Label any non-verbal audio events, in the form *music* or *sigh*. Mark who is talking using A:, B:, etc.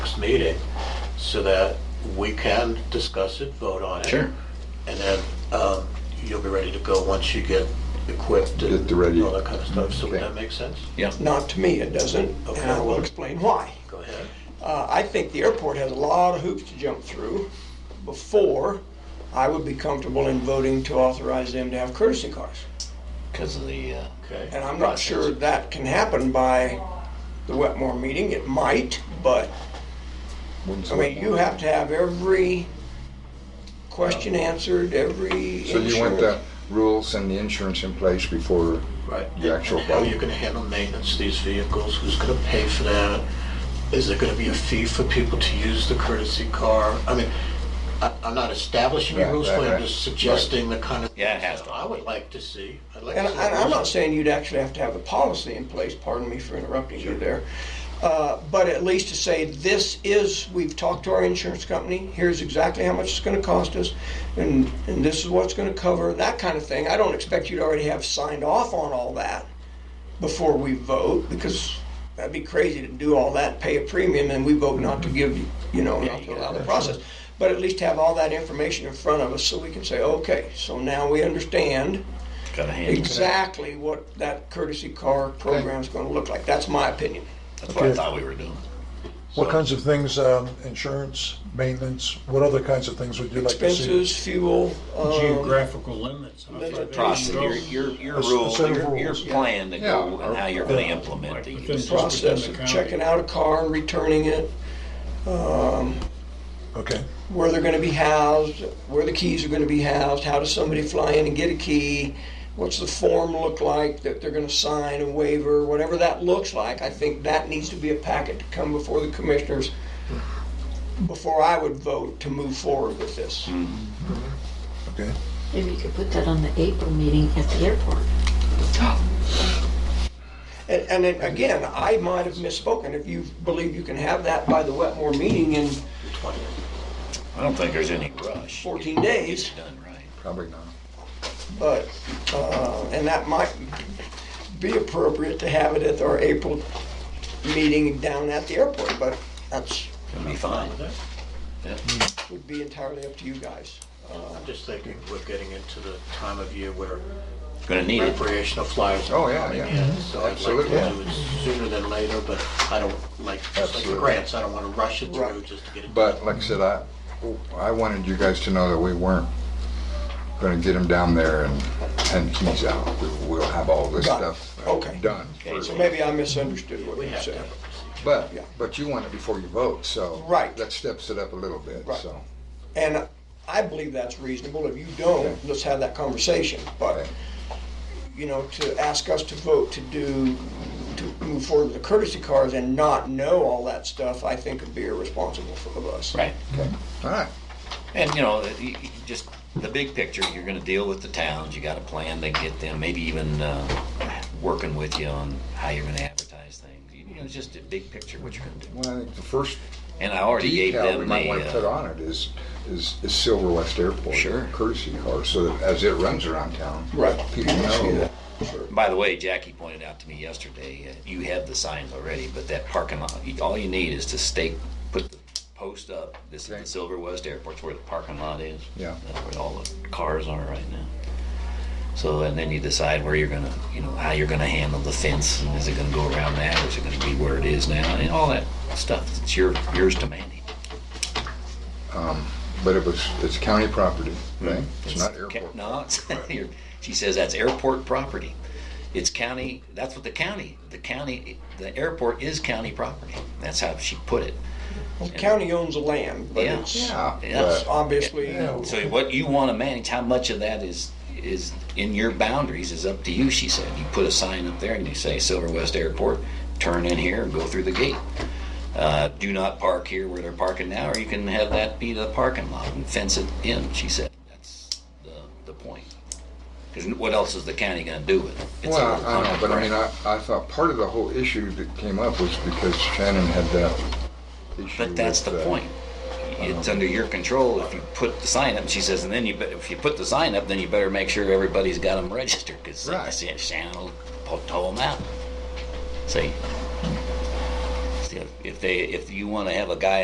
A: meeting so that we can discuss it, vote on it.
B: Sure.
A: And then um, you'll be ready to go once you get equipped
C: Get
A: and
C: the ready.
A: all that kind of stuff. So would
C: Okay.
A: that make sense?
B: Yeah.
D: Not to me, it doesn't, and I will explain why.
A: Go ahead.
D: Uh, I think the airport has a lot of hoops to jump through before I would be comfortable in voting to authorize them to have courtesy cars.
B: Because of the, uh,
D: And
A: Okay.
D: I'm not sure that can happen by the Wetmore meeting. It might, but, I mean, you have to have every question answered, every
C: So you want the
D: insurance.
C: rules and the insurance in place before
A: Right.
C: the actual
A: And How are you
C: vote?
A: going to handle maintenance of these vehicles? Who's going to pay for that? Is there going to be a fee for people to use the courtesy car? I mean, I- I'm not establishing a
C: Right,
A: rules,
C: right,
A: but
C: right.
A: I'm just suggesting the kind of.
B: Yeah, it has
A: things
B: to.
A: I would like to see. I'd like
D: And
A: to see.
D: and I'm not
A: rules.
D: saying you'd actually have to have a policy in place, pardon me for interrupting you there. Uh, But at least to say, this is, we've talked to our insurance company, here's exactly how much it's gonna cost us, and, and this is what it's gonna cover, that kind of thing. I don't expect you to already have signed off on all that before we vote, because that'd be crazy to do all that, pay a premium, and we vote not to give, you you know, not to allow the process. But at least have all that information in front of us, so we can say, okay, so now we understand
B: got a hand.
D: exactly what that courtesy car program's gonna look like. That's my opinion.
B: That's what I
E: Okay.
B: thought we were doing.
E: What kinds of things, um, insurance, maintenance, what other kinds of things would you like to see?
D: Expenses, fuel, um,
F: geographical limits. I think
D: limit-
F: they
B: Process,
F: go
B: your, your, your
E: A s- a
B: rule,
E: set of
B: your, your
E: rules.
B: plan to go
C: Yeah.
B: and how you're gonna implement
F: within-
B: these.
D: process of checking out a car and returning it,
E: Okay,
D: where they're gonna be housed, where the keys are gonna be housed, how does somebody fly in and get a key? What's the form look like that they're gonna sign a waiver, whatever that looks like, I think that needs to be a packet to come before the commissioners before I would vote to move forward with this.
E: okay.
G: Maybe you could put that on the April meeting at the airport.
D: And, and then, again, I might have misspoken. If you believe you can have that by the Wetmore meeting in
B: I don't think there's any rush.
D: 14
B: Get- get
D: days.
B: it Done right.
C: Probably not.
D: but, uh, and that might be appropriate to have it at our April meeting down at the airport, but that's,
B: It'll be fine.
D: would be entirely up to you guys.
A: I'm just thinking we're getting into the time of year where
B: Gonna need it.
A: recreational flyers
C: Oh,
A: are
C: yeah,
A: coming
C: yeah. Mm-hmm.
A: in. So I'd like to
C: Absolutely.
A: do it sooner than later, but I don't like, just like the
C: Absolutely.
A: grants, I don't want to rush it through
D: Right.
A: just to get it.
C: But like I said, I, I wanted you guys to know that we weren't gonna get him down there and, and he's out. We- We'll have all this
D: Got it.
C: stuff
D: Okay.
C: done.
D: So maybe I misunderstood what you said.
C: But,
D: Yeah.
C: but you want it before you vote, so.
D: Right.
C: That steps it up a little bit,
D: Right.
C: so.
D: And I believe that's reasonable. If you don't, let's have that conversation. But,
C: Okay.
D: you know, to ask us to vote to do, to move forward with the courtesy cars and not know all that stuff, I think would be irresponsible of us.
B: Right.
C: All right.
B: And, you know, you- you just the big picture, you're gonna deal with the towns, you got a plan to get them, maybe even, uh, working with you on how you're gonna advertise things. You know, just a big picture, what you're gonna do.
C: Well, I think the first
B: And I already gave
C: detail we
B: them
C: might want to put
B: the, uh,
C: on it is, is, is Silver West Airport.
B: Sure.
C: Courtesy car, so that as it runs around town.
D: Right.
C: People
D: See
C: know.
D: that.
B: by the way, Jackie pointed out to me yesterday, uh, you have the signs already, but that parking lot, you- all you need is to stake, put the post up. This is
C: Okay.
B: the Silver West Airport, it's where the parking lot is.
C: Yeah.
B: That's where all the cars are right now. So, and then you decide where you're gonna, you know, how you're gonna handle the fence, and is it gonna go around that, or is it gonna be where it is now, and all that stuff, it's your, yours to manage.
C: But it was, it's county property, right? It's not
B: Mm. ca-
C: airport.
B: No, it's, *laughs* your- she says that's airport property. It's county, that's what the county, the county, the airport is county property. That's how she put it.
D: The county owns the land, but
B: Yeah.
D: it's
C: Yeah,
B: Yeah.
C: but-
D: it's obviously,
B: So what you want to manage, how much of that is, is in your boundaries is up to you, she said. You put a sign up there and you say Silver West Airport, turn in here and go through the gate. Uh, do not park here where they're parking now, or you can have that be the parking lot and fence it in, she said. That's the, the point. Because what else is the county gonna do with it? It's all
C: Well, I know, but I mean, I, I thought part of the whole issue that came up was because Shannon had that issue.
B: But that's the
C: with, uh,
B: point. It's under your control if you put the sign up. She says, and then you, bet- if you put the sign up, then you better make sure everybody's got them registered, because
C: Right.
B: Shannon will po- tow them out. See? See, if- If they, if you want to have a guy